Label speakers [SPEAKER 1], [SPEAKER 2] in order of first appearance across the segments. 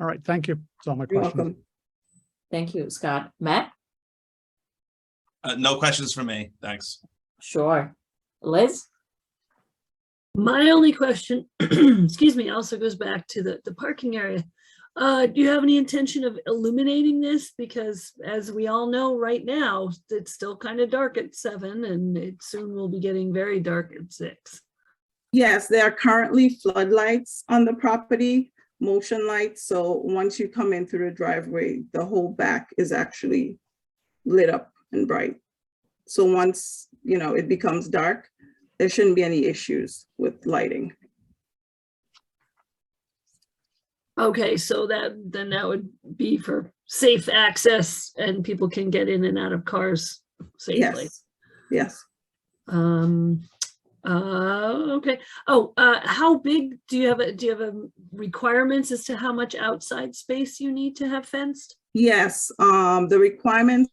[SPEAKER 1] All right, thank you. That's all my
[SPEAKER 2] You're
[SPEAKER 1] questions.
[SPEAKER 2] welcome. Thank you, Scott. Matt?
[SPEAKER 3] Uh, no questions for me. Thanks.
[SPEAKER 2] Sure. Liz?
[SPEAKER 4] My only question, excuse me, also goes back to the, the parking area. Uh, do you have any intention of illuminating this? Because as we all know, right now, it's still kind of dark at seven and it soon will be getting very dark at six.
[SPEAKER 5] Yes, there are currently floodlights on the property, motion lights. So once you come in through the driveway, the whole back is actually lit up and bright. So once, you know, it becomes dark, there shouldn't be any issues with lighting.
[SPEAKER 4] Okay, so that, then that would be for safe access and people can get in and out of cars safely.
[SPEAKER 5] Yes, yes.
[SPEAKER 4] Um, uh, okay. Oh, uh, how big do you have, a do you have a requirements as to how much outside space you need to have fenced?
[SPEAKER 5] Yes, um, the requirements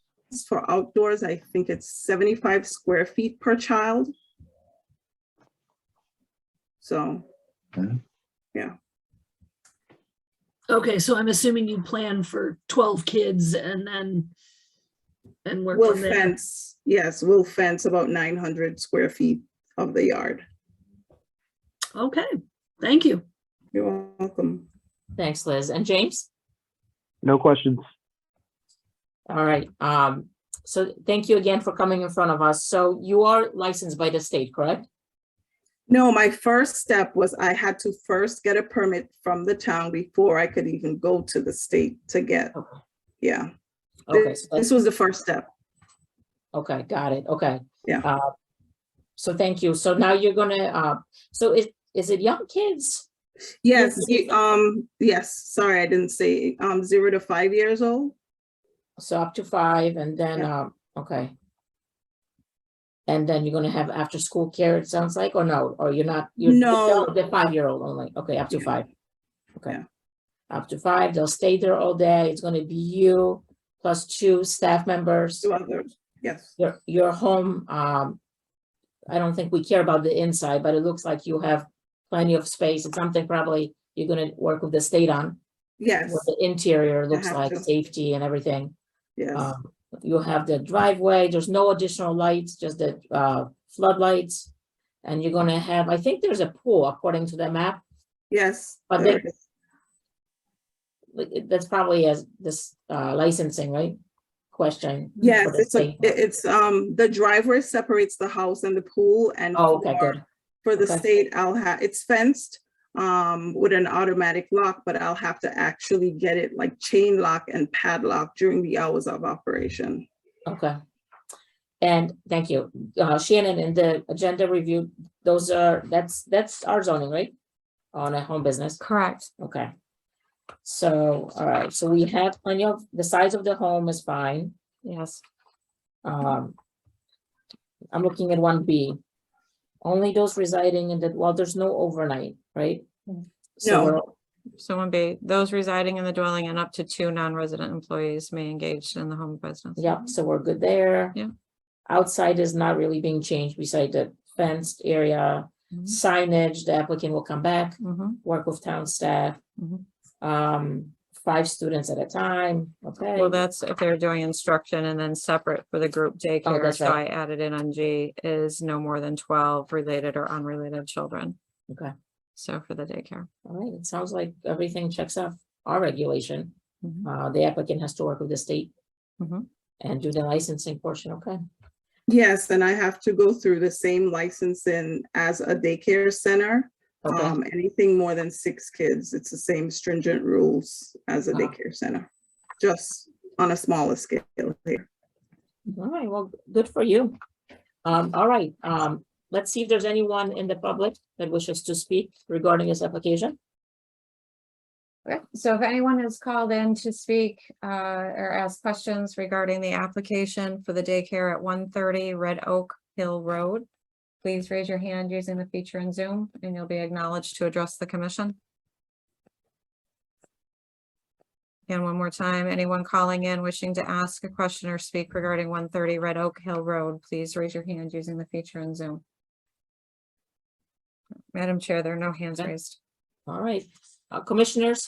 [SPEAKER 5] for outdoors, I think it's seventy-five square feet per child. So,
[SPEAKER 4] Okay, so I'm assuming you plan for twelve kids and then and work
[SPEAKER 5] we'll
[SPEAKER 4] from there.
[SPEAKER 5] fence, yes, we'll fence about nine hundred square feet of the yard.
[SPEAKER 4] Okay, thank you.
[SPEAKER 5] You're welcome.
[SPEAKER 2] Thanks, Liz. And James?
[SPEAKER 6] No questions.
[SPEAKER 2] All right. Um, so thank you again for coming in front of us. So you are licensed by the state, correct?
[SPEAKER 5] No, my first step was I had to first get a permit from the town before I could even go to the state to get,
[SPEAKER 2] Okay.
[SPEAKER 5] yeah.
[SPEAKER 2] Okay,
[SPEAKER 5] This
[SPEAKER 2] so that's-
[SPEAKER 5] this was the first step.
[SPEAKER 2] okay, got it. Okay.
[SPEAKER 5] Yeah.
[SPEAKER 2] Uh, So thank you. So now you're gonna, uh, so is, is it young kids?
[SPEAKER 5] Yes,
[SPEAKER 2] Yes,
[SPEAKER 5] you- um, yes, sorry, I didn't say, um, zero to five years old.
[SPEAKER 2] So up to five and then,
[SPEAKER 5] Yeah.
[SPEAKER 2] um, okay. And then you're gonna have after-school care, it sounds like, or no, or you're not? you're-
[SPEAKER 5] No.
[SPEAKER 2] The five-year-old only, okay, up to
[SPEAKER 5] Yeah.
[SPEAKER 2] five. Okay.
[SPEAKER 5] Yeah.
[SPEAKER 2] Up to five, they'll stay there all day. It's gonna be you plus two staff members.
[SPEAKER 5] Two others, yes.
[SPEAKER 2] Your, your home, um, I don't think we care about the inside, but it looks like you have plenty of space. It's something probably you're gonna work with the state on.
[SPEAKER 5] Yes,
[SPEAKER 2] What the interior looks
[SPEAKER 5] have
[SPEAKER 2] like,
[SPEAKER 5] to.
[SPEAKER 2] safety and everything.
[SPEAKER 5] yes,
[SPEAKER 2] Um, You have the driveway, there's no additional lights, just the uh, floodlights. And you're gonna have, I think there's a pool according to the map,
[SPEAKER 5] yes.
[SPEAKER 2] but
[SPEAKER 5] there
[SPEAKER 2] they-
[SPEAKER 5] is.
[SPEAKER 2] but it- that's probably as this uh, licensing, right? Question. for
[SPEAKER 5] Yes,
[SPEAKER 2] the
[SPEAKER 5] it's a,
[SPEAKER 2] state.
[SPEAKER 5] it- it's, um, the driveway separates the house and the pool and
[SPEAKER 2] Oh, Okay,
[SPEAKER 5] for-
[SPEAKER 2] good.
[SPEAKER 5] For the
[SPEAKER 2] Okay.
[SPEAKER 5] state, I'll have, it's fenced um, with an automatic lock, but I'll have to actually get it like chain lock and padlock during the hours of operation.
[SPEAKER 2] Okay. And thank you. Uh, Shannon, in the agenda review, those are, that's, that's our zoning, right? On a home business.
[SPEAKER 7] Correct.
[SPEAKER 2] Okay. So, all right, so we have plenty of, the size of the home is fine.
[SPEAKER 7] Yes.
[SPEAKER 2] Um. I'm looking at one B. Only those residing in the, well, there's no overnight, right? So
[SPEAKER 7] Mm.
[SPEAKER 5] No.
[SPEAKER 2] we're-
[SPEAKER 7] So one B, those residing in the dwelling and up to two non-resident employees may engage in the home business.
[SPEAKER 2] Yep, so we're good there.
[SPEAKER 7] Yeah.
[SPEAKER 2] Outside is not really being changed beside the fenced area,
[SPEAKER 7] Mhm.
[SPEAKER 2] signage, the applicant will come back,
[SPEAKER 7] Mhm.
[SPEAKER 2] work with town staff.
[SPEAKER 7] Mhm.
[SPEAKER 2] Um, five students at a time, okay?
[SPEAKER 7] Well, that's if they're doing instruction and then separate for the group daycare.
[SPEAKER 2] Oh, that's
[SPEAKER 7] So I
[SPEAKER 2] right.
[SPEAKER 7] added in on G is no more than twelve related or unrelated children.
[SPEAKER 2] Okay.
[SPEAKER 7] So for the daycare.
[SPEAKER 2] All right, it sounds like everything checks off our regulation.
[SPEAKER 7] Mhm.
[SPEAKER 2] Uh, the applicant has to work with the state.
[SPEAKER 7] Mhm.
[SPEAKER 2] And do the licensing portion, okay?
[SPEAKER 5] Yes, and I have to go through the same licensing as a daycare center.
[SPEAKER 2] Okay,
[SPEAKER 5] Um, Anything more than six kids, it's the same stringent rules as a
[SPEAKER 2] Ah.
[SPEAKER 5] daycare center, just on a smaller scale here.
[SPEAKER 2] all right, well, good for you. Um, all right, um, let's see if there's anyone in the public that wishes to speak regarding this application.
[SPEAKER 7] Okay, so if anyone has called in to speak uh, or ask questions regarding the application for the daycare at one thirty Red Oak Hill Road, please raise your hand using the feature in Zoom and you'll be acknowledged to address the commission. And one more time, anyone calling in wishing to ask a question or speak regarding one thirty Red Oak Hill Road, please raise your hand using the feature in Zoom. Madam Chair, there are no hands
[SPEAKER 2] Okay.
[SPEAKER 7] raised.
[SPEAKER 2] All right, uh, commissioners